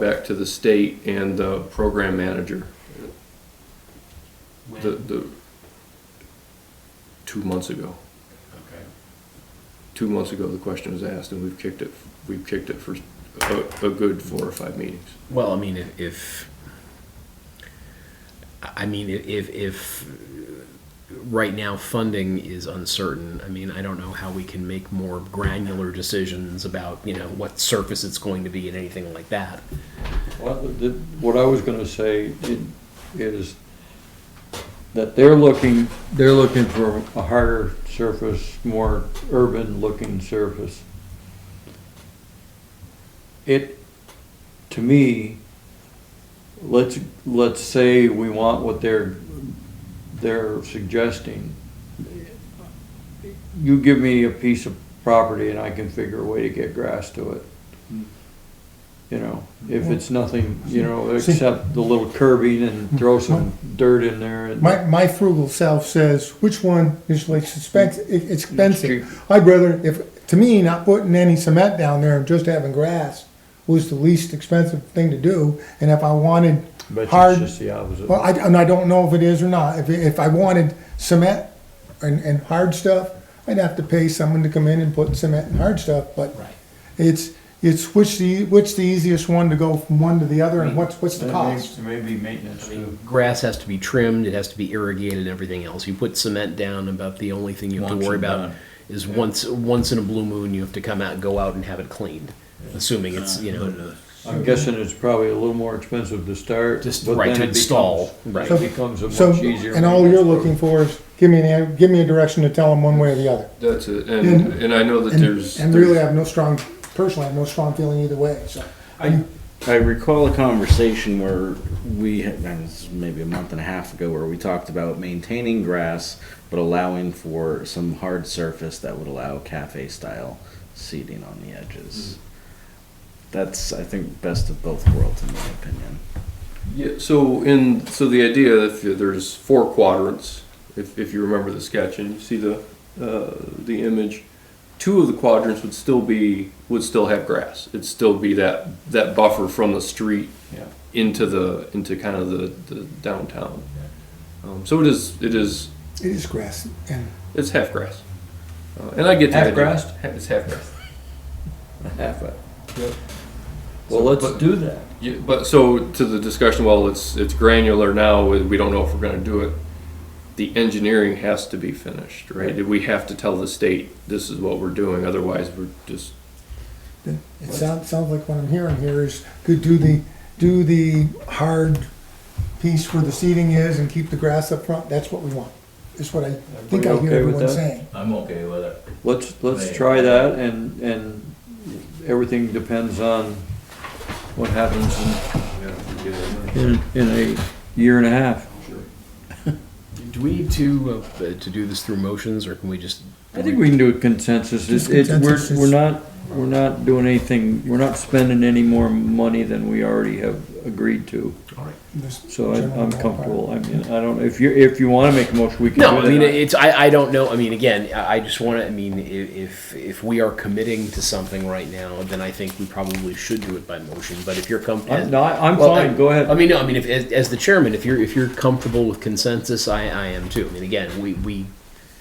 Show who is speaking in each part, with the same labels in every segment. Speaker 1: back to the state and the program manager,
Speaker 2: When?
Speaker 1: the, the, two months ago.
Speaker 2: Okay,
Speaker 1: Two months ago, the question was asked, and we've kicked it, we've kicked it for a, a good four or five meetings.
Speaker 3: Well, I mean, if, if I mean, if, if right now funding is uncertain, I mean, I don't know how we can make more granular decisions about, you know, what surface it's going to be and anything like that.
Speaker 4: Well, the- What I was gonna say i- is that they're looking, they're looking for a harder surface, more urban-looking surface. It, to me, let's, let's say we want what they're, they're suggesting. You give me a piece of property and I can figure a way to get grass to it. You know, if it's nothing, you know,
Speaker 5: See-
Speaker 4: except the little curbing and throw some dirt in there and.
Speaker 5: My, my frugal self says, which one is least expensive?
Speaker 4: Cheap.
Speaker 5: expensive? I'd rather, if, to me, not putting any cement down there and just having grass was the least expensive thing to do. And if I wanted
Speaker 4: But
Speaker 5: hard,
Speaker 4: it's just the opposite.
Speaker 5: well, I, and I don't know if it is or not. If, if I wanted cement and, and hard stuff, I'd have to pay someone to come in and put cement and hard stuff, but it's, it's which the, which the easiest one to go from one to the other and what's, what's the cost?
Speaker 4: Maybe maintenance too.
Speaker 3: Grass has to be trimmed, it has to be irrigated and everything else. You put cement down, about the only thing you have
Speaker 2: Once
Speaker 3: to worry
Speaker 2: and
Speaker 3: about
Speaker 2: done.
Speaker 3: is once once in a blue moon you have to come out and go out and have it cleaned. Assuming it's,
Speaker 2: Uh,
Speaker 3: you know,
Speaker 4: I'm guessing it's probably a little more expensive to start.
Speaker 3: Just
Speaker 4: but
Speaker 3: right
Speaker 4: then
Speaker 3: to
Speaker 4: it becomes-
Speaker 3: install, right.
Speaker 4: It becomes a
Speaker 5: So,
Speaker 4: much easier.
Speaker 5: and all you're
Speaker 4: maintenance
Speaker 5: looking for is, give me an, give me a direction to tell them one way or the other.
Speaker 1: That's it,
Speaker 5: And-
Speaker 1: and, and I know that
Speaker 5: And,
Speaker 1: there's.
Speaker 5: and really I have no strong, personally, I have no strong feeling either way, so.
Speaker 6: I, I recall a conversation where we had, that was maybe a month and a half ago, where we talked about maintaining grass, but allowing for some hard surface that would allow cafe style seating on the edges. That's, I think, best of both worlds, in my opinion.
Speaker 1: Yeah, so in, so the idea, if there's four quadrants, if, if you remember the sketch and you see the, uh, the image, two of the quadrants would still be, would still have grass. It'd still be that, that buffer from the street
Speaker 4: Yeah.
Speaker 1: into the, into kind of the, the downtown. Um, so it is, it is,
Speaker 5: It is grass and
Speaker 1: it's half grass. Uh, and I get the
Speaker 4: Half
Speaker 1: idea.
Speaker 4: grassed?
Speaker 1: Ha- It's half grass.
Speaker 4: too. Half it.
Speaker 1: Yep.
Speaker 4: Well,
Speaker 1: So,
Speaker 4: let's
Speaker 1: but-
Speaker 4: do that.
Speaker 1: Yeah, but so to the discussion, while it's, it's granular now, we we don't know if we're gonna do it. The engineering has to be finished, right? We have to tell the state, this is what we're doing, otherwise we're just,
Speaker 5: it sounds, sounds like what I'm hearing here is, could do the, do the hard piece where the seating is and keep the grass up front, that's what we want. That's what I think
Speaker 4: Everybody
Speaker 5: I hear
Speaker 4: okay with
Speaker 5: everyone
Speaker 4: that?
Speaker 5: saying.
Speaker 2: I'm okay with it.
Speaker 4: Let's, let's
Speaker 2: Right.
Speaker 4: try that and, and everything depends on what happens in, in, in a year and a half.
Speaker 3: Do we need to, uh, to do this through motions, or can we just?
Speaker 4: I think we can do a consensus. It's,
Speaker 5: Just
Speaker 4: it's, we're,
Speaker 5: consensus.
Speaker 4: we're not, we're not doing anything, we're not spending any more money than we already have agreed to.
Speaker 5: This
Speaker 4: So I-
Speaker 5: general
Speaker 4: I'm
Speaker 5: ballpark.
Speaker 4: comfortable. I mean, I don't, if you, if you wanna make a motion, we can do
Speaker 3: No, I mean,
Speaker 4: that.
Speaker 3: it's, I, I don't know, I mean, again, I I just wanna, I mean, i- if, if we are committing to something right now, then I think we probably should do it by motion, but if you're
Speaker 4: I'm,
Speaker 3: comfortable.
Speaker 4: no, I- I'm fine. Go
Speaker 3: I
Speaker 4: ahead.
Speaker 3: mean, no, I mean, if, as, as the chairman, if you're, if you're comfortable with consensus, I, I am too, I mean, again, we, we,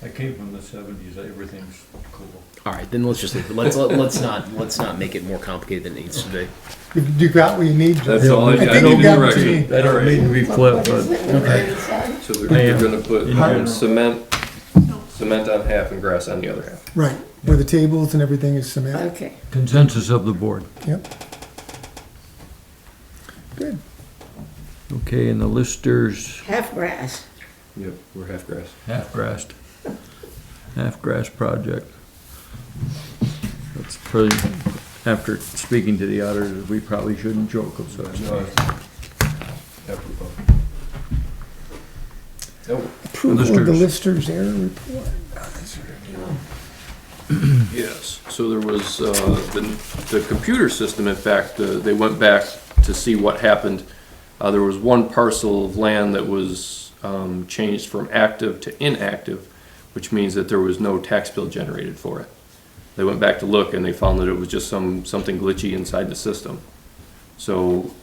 Speaker 4: I came from the seventies. Everything's cool.
Speaker 3: all right, then let's just, leave it. let's, let- let's not, let's not make it more complicated than it needs to be.
Speaker 5: You- You got what you need. Joe.
Speaker 1: that's all I,
Speaker 5: I
Speaker 1: I
Speaker 5: think
Speaker 1: need
Speaker 5: you
Speaker 1: a
Speaker 5: got what you
Speaker 1: direction.
Speaker 5: need.
Speaker 4: That don't need to be flipped,
Speaker 1: So
Speaker 4: but
Speaker 1: they're, they're gonna
Speaker 4: general.
Speaker 1: put cement, cement on half and grass on the other half.
Speaker 5: Right, where the tables and everything is cement,
Speaker 7: Okay.
Speaker 4: consensus of the board.
Speaker 5: yep. Good.
Speaker 4: Okay, and the listers,
Speaker 7: Half grass.
Speaker 1: Yep, we're half grass.
Speaker 4: half-grassed, half-grass project. That's pretty, after speaking to the auditors, we probably shouldn't joke of such things.
Speaker 5: Approval of the
Speaker 4: Listers.
Speaker 5: listers error report.
Speaker 1: Yes, so there was, uh, the, the computer system, in fact, uh, they went back to see what happened. Uh, there was one parcel of land that was, um, changed from active to inactive, which means that there was no tax bill generated for it. They went back to look and they found that it was just some, something glitchy inside the system. So